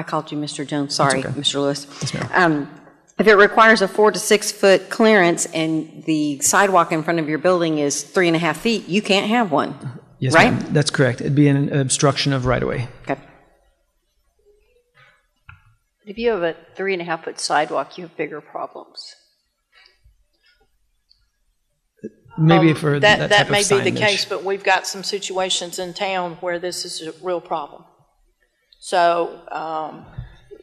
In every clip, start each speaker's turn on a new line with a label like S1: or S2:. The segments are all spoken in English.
S1: I called you Mr. Jones, sorry, Mr. Lewis.
S2: Yes, ma'am.
S1: Um, If it requires a four to six-foot clearance and the sidewalk in front of your building is three and a half feet, you can't have one.
S2: Yes,
S1: Right?
S2: ma'am. That's correct. It'd be an obstruction of right of way.
S1: Okay.
S3: If you have a three and a half foot sidewalk, you have bigger problems.
S2: Maybe
S4: Um,
S2: for th-
S4: That,
S2: type
S4: that
S2: of
S4: may be the
S2: signage.
S4: case, but we've got some situations in town where this is a real problem. So um,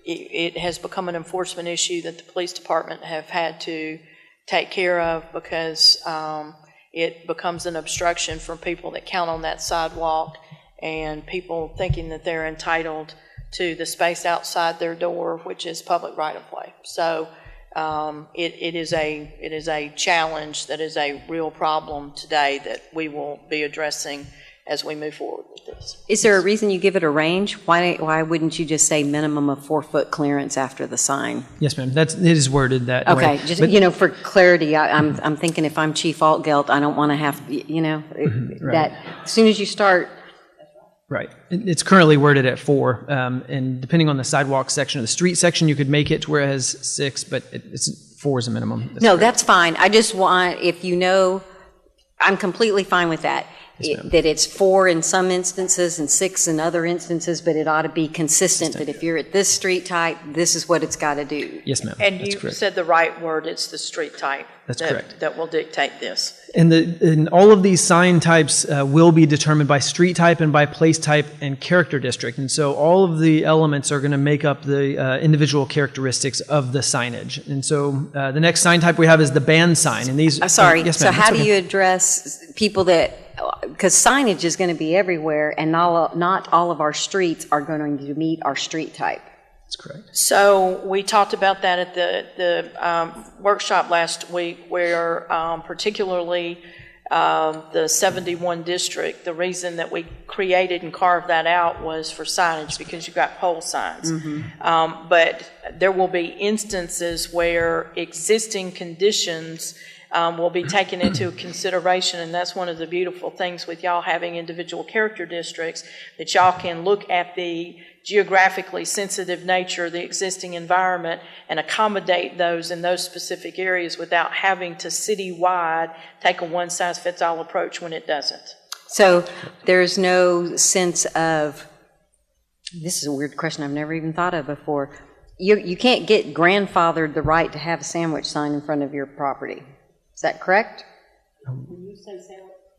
S4: it, it has become an enforcement issue that the police department have had to take care of because um, it becomes an obstruction for people that count on that sidewalk and people thinking that they're entitled to the space outside their door, which is public right-of-way. So um, it, it is a, it is a challenge that is a real problem today that we will be addressing as we move forward with this.
S1: Is there a reason you give it a range? Why, why wouldn't you just say minimum of four-foot clearance after the sign?
S2: Yes, ma'am. That's it is worded that way.
S1: Okay, just,
S2: But-
S1: you know, for clarity, I- I'm, I'm thinking if I'm Chief Altgeld, I don't want to have, y- you know,
S2: Mm-hmm.
S1: it- that, as soon as you start,
S2: Right. It- It's currently worded at four, um, and depending on the sidewalk section or the street section, you could make it to where it has six, but it, it's four is a minimum. That's
S1: no, that's fine. I just want, if you know, I'm completely fine with that. It- That it's four in some instances and six in other instances, but it ought to be consistent, that if you're at this street type, this is what it's got to do.
S2: Yes, ma'am.
S4: And
S2: That's
S4: you
S2: correct.
S4: said the right word, it's the street type.
S2: That's
S4: that-
S2: correct.
S4: That will dictate this.
S2: And, the, and all of these sign types uh, will be determined by street type and by place type and character district. And so all of the elements are going to make up the uh, individual characteristics of the signage. And so uh, the next sign type we have is the band sign. And these.
S1: I'm sorry.
S2: oh, yes,
S1: so
S2: ma'am.
S1: how
S2: That's
S1: do
S2: okay.
S1: you address people that, because signage is going to be everywhere, and not, not all of our streets are going to meet our street type.
S2: That's correct.
S4: So we talked about that at the, the um, workshop last week where um, particularly um, the 71 district, the reason that we created and carved that out was for signage because you've got pole signs. Um, But there will be instances where existing conditions um, will be taken into consideration, and that's one of the beautiful things with y'all having individual character districts, that y'all can look at the geographically sensitive nature of the existing environment and accommodate those in those specific areas without having to citywide take a one-size-fits-all approach when it doesn't.
S1: So there's no sense of, this is a weird question I've never even thought of before. You, you can't get grandfathered the right to have a sandwich sign in front of your property. Is that correct?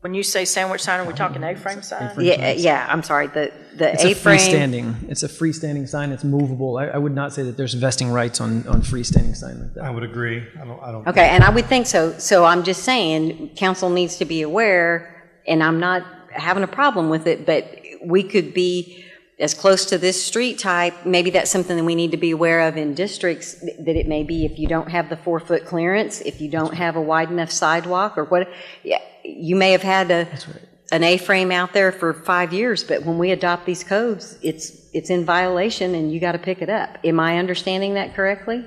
S4: When you say sandwich sign, are we talking A-frame sign?
S1: Yeah, yeah, I'm sorry, the, the
S2: It's a
S1: A-frame.
S2: freestanding. It's a freestanding sign. It's movable. I, I would not say that there's vesting rights on, on freestanding sign like that.
S5: I would agree. I don't, I don't.
S1: Okay, and I would think so. So I'm just saying, council needs to be aware, and I'm not having a problem with it, but we could be as close to this street type, maybe that's something that we need to be aware of in districts, th- that it may be if you don't have the four-foot clearance, if you don't have a wide enough sidewalk, or what, yeah, you may have had a, an A-frame out there for five years, but when we adopt these codes, it's, it's in violation, and you got to pick it up. Am I understanding that correctly?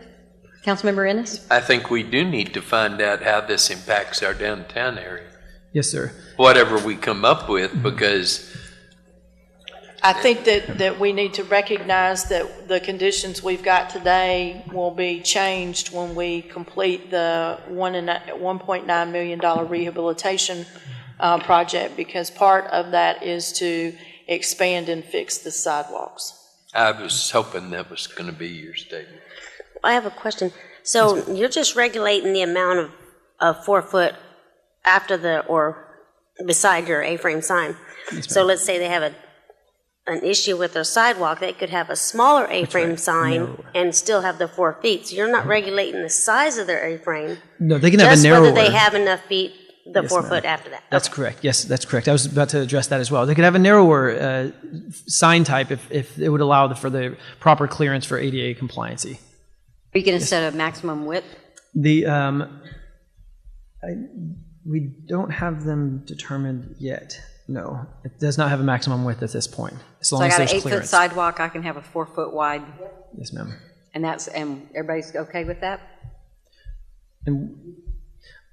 S1: Councilmember Ennis?
S6: I think we do need to find out how this impacts our downtown area,
S2: Yes, sir.
S6: whatever we come up with, because
S4: I think that, that we need to recognize that the conditions we've got today will be changed when we complete the one and, a- $1.9 million dollar rehabilitation uh, project, because part of that is to expand and fix the sidewalks.
S6: I was hoping that was going to be your statement.
S7: I have a question. So you're just regulating the amount of, of four foot after the, or beside your A-frame sign. So let's say they have a, an issue with their sidewalk, they could have a smaller A-frame sign and still have the four feet. So you're not regulating the size of their A-frame,
S2: No, they can have a
S7: just
S2: narrower.
S7: whether they have enough feet, the
S2: Yes,
S7: four
S2: ma'am.
S7: foot after that.
S2: That's correct. Yes, that's correct. I was about to address that as well. They could have a narrower uh, sign type if, if it would allow the, for the proper clearance for ADA compliancy.
S1: Are you going to set a maximum width?
S2: The um, I, we don't have them determined yet. No, it does not have a maximum width at this point. As long
S1: So I
S2: as
S1: got an
S2: there's
S1: eight-foot
S2: clearance.
S1: sidewalk, I can have a four-foot wide,
S2: Yes, ma'am.
S1: and that's, and everybody's okay with that?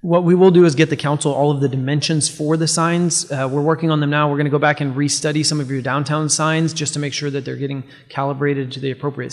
S2: What we will do is get the council all of the dimensions for the signs. Uh, we're working on them now. We're going to go back and restudy some of your downtown signs just to make sure that they're getting calibrated to the appropriate